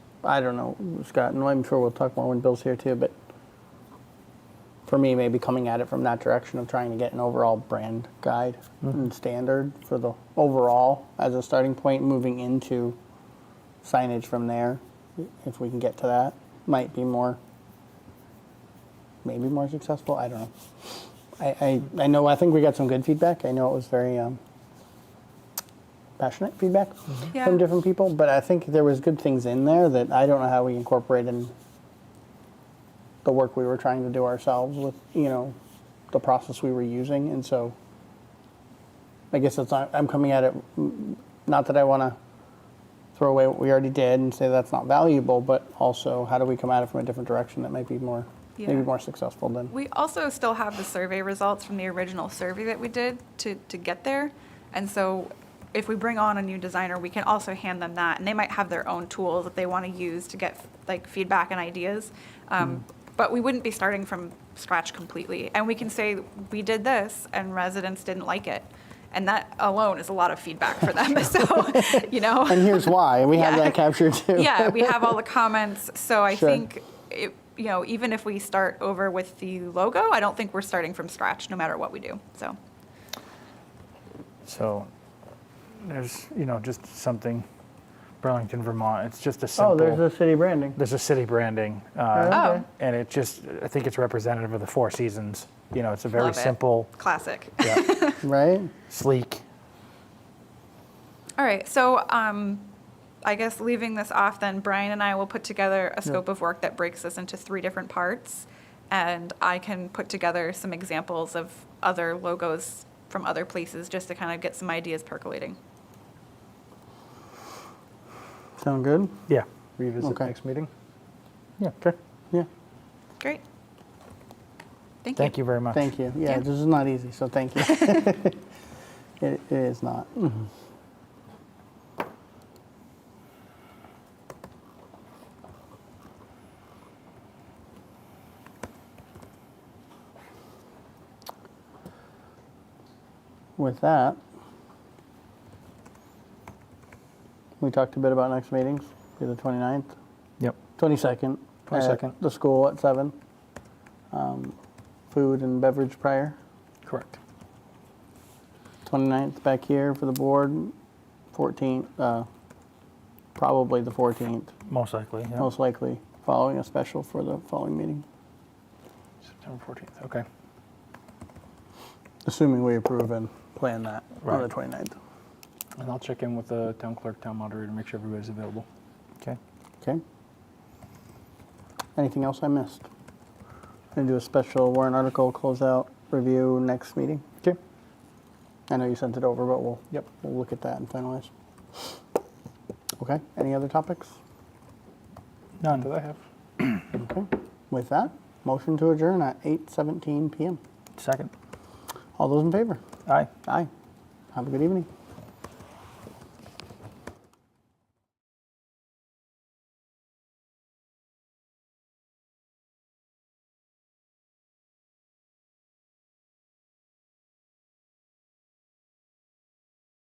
I don't know, Scott, and I'm sure we'll talk more when Bill's here too, but for me, maybe coming at it from that direction of trying to get an overall brand guide and standard for the overall as a starting point, moving into signage from there, if we can get to that, might be more, maybe more successful. I don't know. I, I, I know, I think we got some good feedback. I know it was very um, passionate feedback Yeah. from different people, but I think there was good things in there that I don't know how we incorporate in the work we were trying to do ourselves with, you know, the process we were using. And so I guess that's not, I'm coming at it, mm, not that I want to throw away what we already did and say that's not valuable, but also how do we come at it from a different direction that might be more, Yeah. maybe more successful than. We also still have the survey results from the original survey that we did to, to get there. And so if we bring on a new designer, we can also hand them that. And they might have their own tools that they want to use to get like feedback and ideas. Um, But we wouldn't be starting from scratch completely. And we can say, we did this and residents didn't like it. And that alone is a lot of feedback for them. So, you know. and here's why. We have Yeah. that captured too. Yeah, we have all the comments, so I Sure. think, it- you know, even if we start over with the logo, I don't think we're starting from scratch, no matter what we do, so. So there's, you know, just something, Burlington, Vermont. It's just a simple. Oh, there's the city branding. there's a city branding, Oh. uh, Oh, and it just I think it's representative of the Four Seasons. You know, it's a very Love it. simple, classic. yeah, Right? sleek. All right, so um, I guess leaving this off, then Brian and I will put together a scope of work that breaks this into three different parts. And I can put together some examples of other logos from other places, just to kind of get some ideas percolating. Sound good? Yeah, Revisit Okay. next meeting? yeah, okay. Yeah. Great. Thank you. Thank you very much. Thank you. Yeah, Yeah. this is not easy, so thank you. it, it is not. Mm-hmm. With that, we talked a bit about next meetings, be the 29th. Yep. 22nd. at 22nd. The school at 7. Um, food and beverage prior. Correct. 29th back here for the board. 14th, uh, probably the 14th, Most likely. Yeah. most likely, following a special for the following meeting, September 14th. Okay. assuming we approve and plan that on the Right. 29th. And I'll check in with the town clerk, town moderator, make sure everybody's available. Okay. Okay. Anything else I missed? Going to do a special warrant article closeout review next meeting. Okay. I know you sent it over, but we'll Yep. We'll look at that and finalize. Okay, any other topics? None that I have. Okay. With that, motion to adjourn at 8:17 PM. Second. All those in favor? Aye. Aye. Have a good evening.